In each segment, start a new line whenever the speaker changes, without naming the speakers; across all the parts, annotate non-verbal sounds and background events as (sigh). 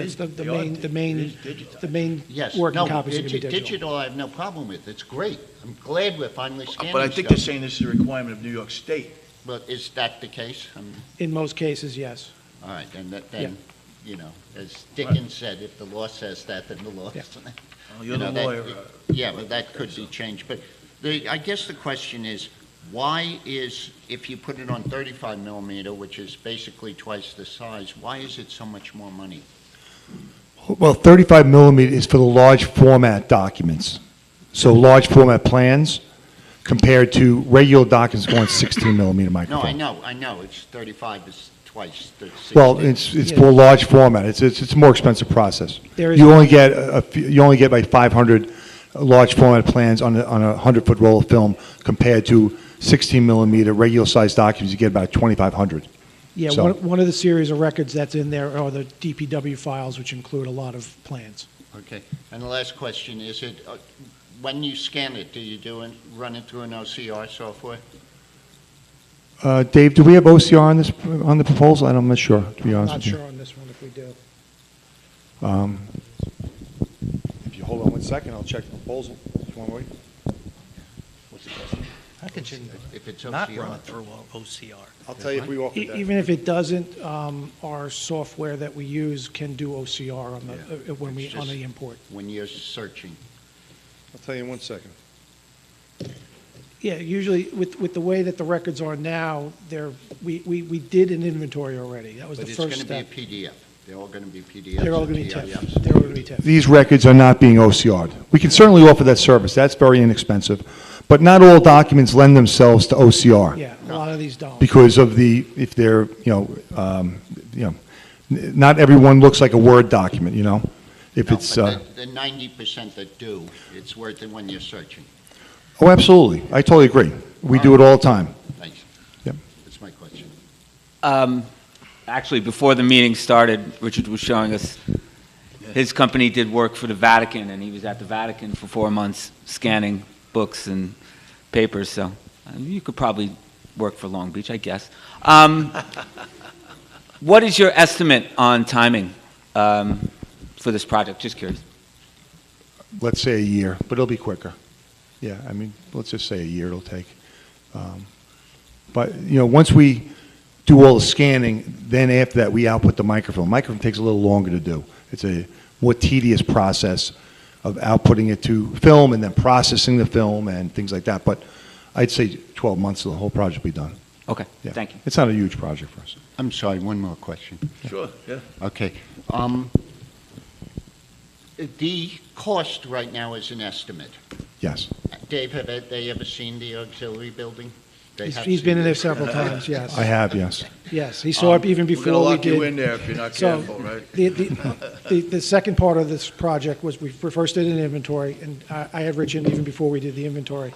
It's the, the
They are
main, the
dig-
main,
dig- digitized.
the main
Yes,
working
no,
copies are gonna be
digi-
digital.
digital, I have no problem with, it's great. I'm glad we're finally scanning
But I think they're
stuff.
saying this is a requirement of New York State.
But is that the case? Um,
In most cases, yes.
All right, then, that- then, you know, as Dickens said, if the law says that, then the law
Yeah.
is...
Oh, You're
You
the
know, that-
lawyer. uh,
Yeah, but that could be changed, but the, I guess the question is, why is, if you put it on thirty-five millimeter, which is basically twice the size, why is it so much more money?
Well, 35 millimeter is for the large format documents. So large format plans compared to regular documents going 16 millimeter
No, I
microfilm.
know, I know, it's thirty-five is twice the sixty.
Well, it's, it's for large format. It's, it's, it's a more expensive process.
There is-
You only get a, a few- you only get like 500 large format plans on a, on a 100-foot roll of film compared to 16 millimeter regular sized documents, you get about 2,500.
Yeah,
So-
one, one of the series of records that's in there are the DPW files, which include a lot of plans.
Okay, and the last question, is it, uh, when you scan it, do you do it, run it through an OCR software?
Uh, Dave, do we have OCR on this, on the proposal? I'm not sure, to be honest
Not
with you.
sure on this one if we do.
Um, If you hold on one second, I'll check the proposal. Just one wait.
I could you
If it's
not run it
OCR?
through a OCR?
I'll tell you if we walk
E- Even if it doesn't, um, our software that we use can do OCR on the, uh, when we,
It's
on
just-
the import.
When you're searching,
I'll tell you in one second.
Yeah, usually with, with the way that the records are now, there, we, we, we did an inventory already. That was the
but it's going
first
to be a
step.
PDF. They're all going to be PDFs.
They're all
and
gonna be
PDFs.
TIFF. They're all gonna be TIFF.
These records are not being OCR'd. We can certainly offer that service, that's very inexpensive. But not all documents lend themselves to OCR.
Yeah, a lot of these don't.
Because of the, if they're, you know, um, you know, n- not everyone looks like a Word document, you know? If
No,
it's,
but
uh,
The ninety percent that do, it's worth it when you're searching.
oh, absolutely, I totally agree. We do it all the time.
Thanks.
Yep.
That's my question.
Um, actually, before the meeting started, Richard was showing us, his company did work for the Vatican, and he was at the Vatican for four months scanning books and papers, so uh, you could probably work for Long Beach, I guess. Um, (laughs) what is your estimate on timing um, for this project? Just curious.
let's say a year, but it'll be quicker. Yeah, I mean, let's just say a year it'll take. Um, But, you know, once we do all the scanning, then after that, we output the microfilm. Microfilm takes a little longer to do. It's a more tedious process of outputting it to film and then processing the film and things like that. But I'd say 12 months, the whole project will be done.
Okay,
Yeah.
thank you.
It's not a huge project for us.
I'm sorry, one more question.
Sure, yeah.
Okay. um, The cost right now is an estimate.
Yes.
Dave, have they ever seen the auxiliary building? They
He's-
have
He's been
seen
in there
it.
several times, yes.
(laughs) I have, yes.
Yes, he saw it even
We're
before we
going to
did.
lock you in there if you're not
So,
careful, right?
the, the, the, the second part of this project was, we first did an inventory, and I, I had Rich in even before we did the inventory.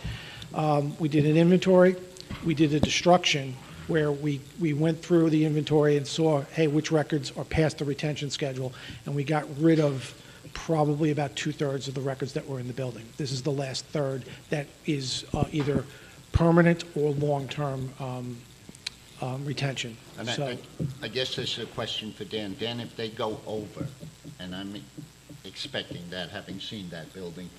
Um, we did an inventory, we did a destruction, where we, we went through the inventory and saw, hey, which records are past the retention schedule, and we got rid of probably about two-thirds of the records that were in the building. This is the last third that is, uh, either permanent or long-term, um, um, retention.
And
So-
I- I, I guess this is a question for Dan. Dan, if they go over, and I'm expecting that, having seen that building,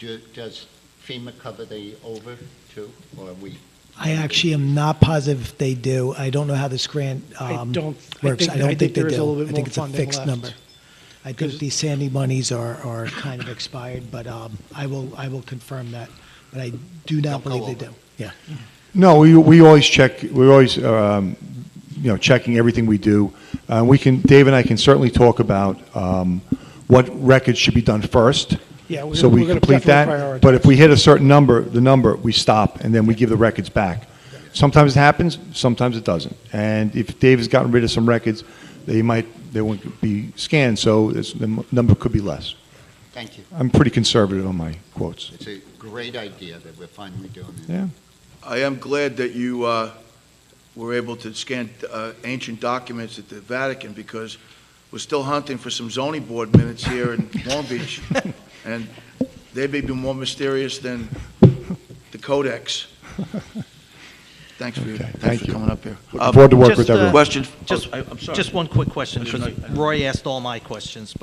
do, does FEMA cover the over too, or we?
I actually am not positive if they do. I don't know how this grant
I
um,
don't, I
works.
think,
I
I
don't
think
think they
there is a
do.
little
I
bit more
think it's a
funding
fixed number.
left.
I think
'Cause-
these Sandy monies are, are kind of expired, but um, I will, I will confirm that. But I do not
Don't go
believe they
over.
do. Yeah.
No, we, we always check, we're always, um, you know, checking everything we do. Uh, we can, Dave and I can certainly talk about, um, what records should be done first.
Yeah, we're
So
gonna-
we
we're gonna
complete
definitely
that. But if we hit a certain number, the number, we stop and then we give the records back. Sometimes it happens, sometimes it doesn't. And if Dave has gotten rid of some records, they might, they won't be scanned, so it's, the m- number could be less.
Thank you.
I'm pretty conservative on my quotes.
It's a great idea that we're finally doing it.
Yeah.
I am glad that you uh, were able to scan uh, ancient documents at the Vatican because we're still hunting for some zoning board minutes here (laughs) in Long Beach, and (laughs) they may be more mysterious than the Codex. Thanks for, your-
Okay,
thanks
thank
for
you.
coming up here.
Looking forward to work
Um, Just,
with
uh,
everyone.
Question?
Just,
I- Oh, I'm sorry.
just one quick question.
I should-
Roy asked all my questions,